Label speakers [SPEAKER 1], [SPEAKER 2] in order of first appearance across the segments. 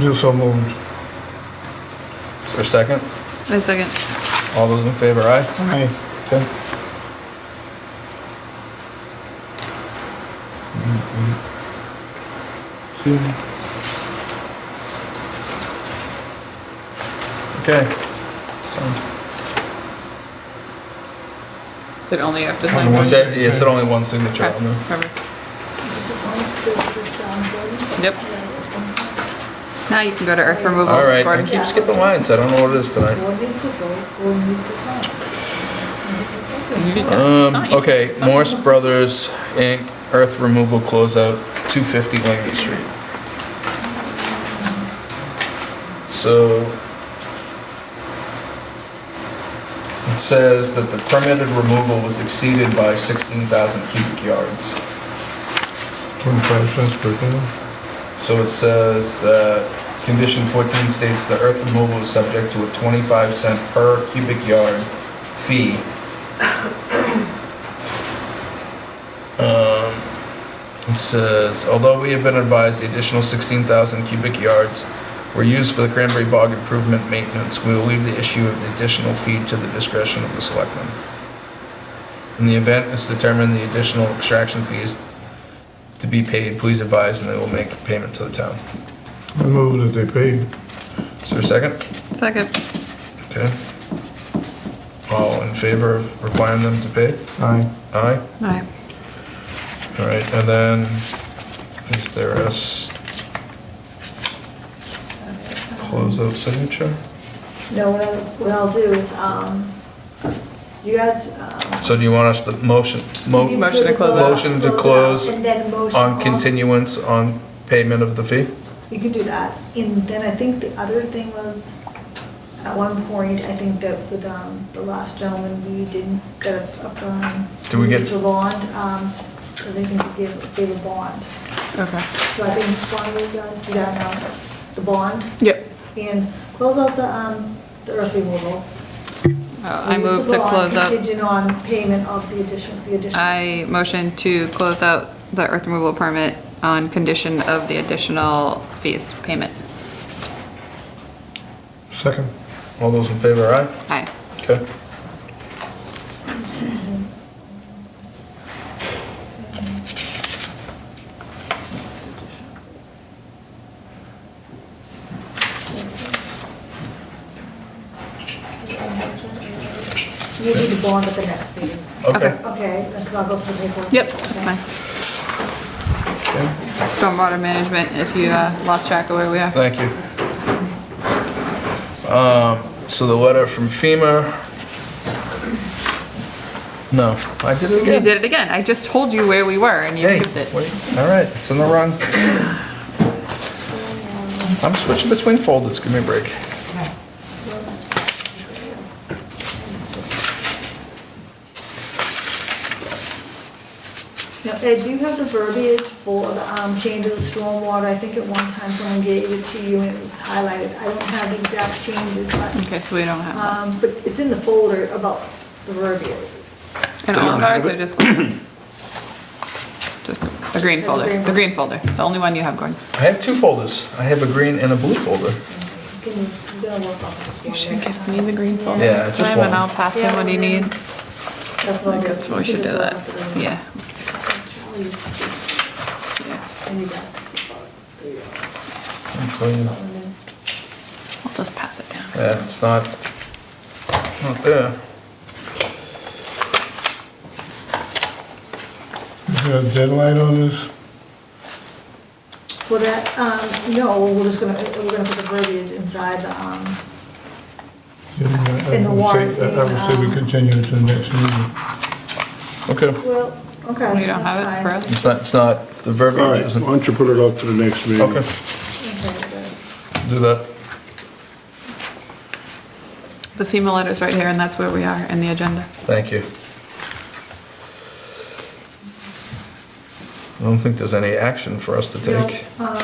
[SPEAKER 1] Do so moved.
[SPEAKER 2] Is there a second?
[SPEAKER 3] I second.
[SPEAKER 2] All those in favor, aye?
[SPEAKER 1] Aye.
[SPEAKER 2] Okay.
[SPEAKER 1] Two.
[SPEAKER 2] Okay. So-
[SPEAKER 3] Did only have to
[SPEAKER 1] Only
[SPEAKER 3] sign
[SPEAKER 1] one.
[SPEAKER 3] one?
[SPEAKER 2] Is there, is there only one signature
[SPEAKER 3] Okay,
[SPEAKER 2] on there?
[SPEAKER 3] perfect. Yep. Now you can go to earth removal.
[SPEAKER 2] All right, I
[SPEAKER 3] Gordon.
[SPEAKER 2] keep skipping lines, I don't know what it is tonight.
[SPEAKER 4] What needs to go, what needs to sign?
[SPEAKER 3] You can
[SPEAKER 2] Um,
[SPEAKER 3] sign.
[SPEAKER 2] okay,
[SPEAKER 3] Sign.
[SPEAKER 2] Morse Brothers Inc., earth removal closeout, two fifty Lincoln Street. So. It says that the permitted removal was exceeded by sixteen thousand cubic yards.
[SPEAKER 1] Twenty-five cents per pound.
[SPEAKER 2] So it says that condition 14 states the earth removal is subject to a 25 cent per cubic yard fee. Um, It says, although we have been advised the additional 16,000 cubic yards were used for the cranberry bog improvement maintenance, we will leave the issue of the additional fee to the discretion of the selectmen. In the event it's determined the additional extraction fees to be paid, please advise, and they will make payment to the town.
[SPEAKER 1] I move that they paid.
[SPEAKER 2] Is there a second?
[SPEAKER 3] Second.
[SPEAKER 2] Okay. All in favor of requiring them to pay?
[SPEAKER 1] Aye.
[SPEAKER 2] Aye?
[SPEAKER 3] Aye.
[SPEAKER 2] All right, and then, is there a s- closeout signature?
[SPEAKER 4] No, what I'll, what I'll do is, um, you guys, um.
[SPEAKER 2] So do you want us to motion,
[SPEAKER 4] you
[SPEAKER 2] mo,
[SPEAKER 4] do
[SPEAKER 3] Motion to
[SPEAKER 4] the
[SPEAKER 3] close
[SPEAKER 4] closeout,
[SPEAKER 2] Motion to
[SPEAKER 4] closeout,
[SPEAKER 2] close
[SPEAKER 4] And then motion.
[SPEAKER 2] on continuance on payment of the fee?
[SPEAKER 4] You can do that. And then I think the other thing was, at one point, I think that with, um, the last gentleman, we didn't get a, a, um.
[SPEAKER 2] Did we get-
[SPEAKER 4] The bond, um, because I think we gave, gave a bond.
[SPEAKER 3] Okay.
[SPEAKER 4] So I think one of you guys do that now, the bond,
[SPEAKER 3] Yep.
[SPEAKER 4] and close out the, um, the earth removal.
[SPEAKER 3] Uh, I
[SPEAKER 4] Use the
[SPEAKER 3] move to
[SPEAKER 4] bond
[SPEAKER 3] close out,
[SPEAKER 4] Contingent on payment of the addition, the addition.
[SPEAKER 3] I motion to close out the earth removal permit on condition of the additional fees payment.
[SPEAKER 1] Second.
[SPEAKER 2] All those in favor, aye?
[SPEAKER 3] Aye.
[SPEAKER 2] Okay.
[SPEAKER 4] You need to bond at the next meeting.
[SPEAKER 2] Okay.
[SPEAKER 3] Okay.
[SPEAKER 4] Okay, then can I go through the paperwork?
[SPEAKER 3] Yep, that's fine.
[SPEAKER 2] Okay.
[SPEAKER 3] Stormwater management, if you uh, lost track of where we are.
[SPEAKER 2] Thank you. Um, so the letter from FEMA. No, I did it
[SPEAKER 3] You
[SPEAKER 2] again.
[SPEAKER 3] did it again. I just told you where we were and you
[SPEAKER 2] Hey,
[SPEAKER 3] skipped it.
[SPEAKER 2] wait, all right, it's in the wrong. I'm switching between folders, give me a break.
[SPEAKER 4] Now, Ed, do you have the verbiage for the um, change of the stormwater? I think at one time someone gave it to you and it was highlighted. I don't have the exact changes, but,
[SPEAKER 3] Okay, so we don't have that.
[SPEAKER 4] um, but it's in the folder about the verbiage.
[SPEAKER 3] And all of ours are just, just the green
[SPEAKER 4] The
[SPEAKER 3] folder,
[SPEAKER 4] green
[SPEAKER 3] the
[SPEAKER 4] one.
[SPEAKER 3] green folder, the only one you have, Gordon.
[SPEAKER 2] I have two folders. I have a green and a blue folder.
[SPEAKER 4] Can you, you gotta work on this one next time.
[SPEAKER 3] the green
[SPEAKER 4] folder
[SPEAKER 2] Yeah, next just time, and one. I'll
[SPEAKER 3] pass
[SPEAKER 4] him what he needs. That's what I did.
[SPEAKER 3] we should do that. Yeah.
[SPEAKER 4] Charlie used to do that. And you got about three hours.
[SPEAKER 2] Yeah,
[SPEAKER 4] And then-
[SPEAKER 3] I'll just pass it down.
[SPEAKER 2] it's not, not there.
[SPEAKER 1] Is there a deadline on this?
[SPEAKER 4] Well, that, um, no, we're just gonna, we're gonna put the verbiage inside the, um, In the warrant,
[SPEAKER 1] I would say we
[SPEAKER 4] um,
[SPEAKER 1] continue to the next meeting.
[SPEAKER 2] Okay,
[SPEAKER 4] well, okay.
[SPEAKER 3] We don't have it for
[SPEAKER 4] that's
[SPEAKER 3] us?
[SPEAKER 2] it's not, it's not, the
[SPEAKER 5] All
[SPEAKER 2] verbiage
[SPEAKER 5] right, why
[SPEAKER 2] isn't.
[SPEAKER 5] don't you put it up to the next meeting?
[SPEAKER 2] Okay,
[SPEAKER 4] fine. Okay, good.
[SPEAKER 2] do that.
[SPEAKER 3] The FEMA letter's right here and that's where we are in the agenda.
[SPEAKER 2] Thank you. I don't think there's any action for us to take.
[SPEAKER 4] No, um,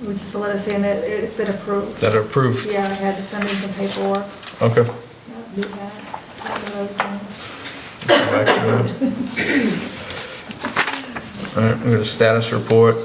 [SPEAKER 4] It was just a letter saying that it's been approved.
[SPEAKER 2] That are approved?
[SPEAKER 4] Yeah, I had to send in some paperwork.
[SPEAKER 2] Okay.
[SPEAKER 4] Yeah, do that. I don't know, um,
[SPEAKER 2] No action. All right, we got a status report.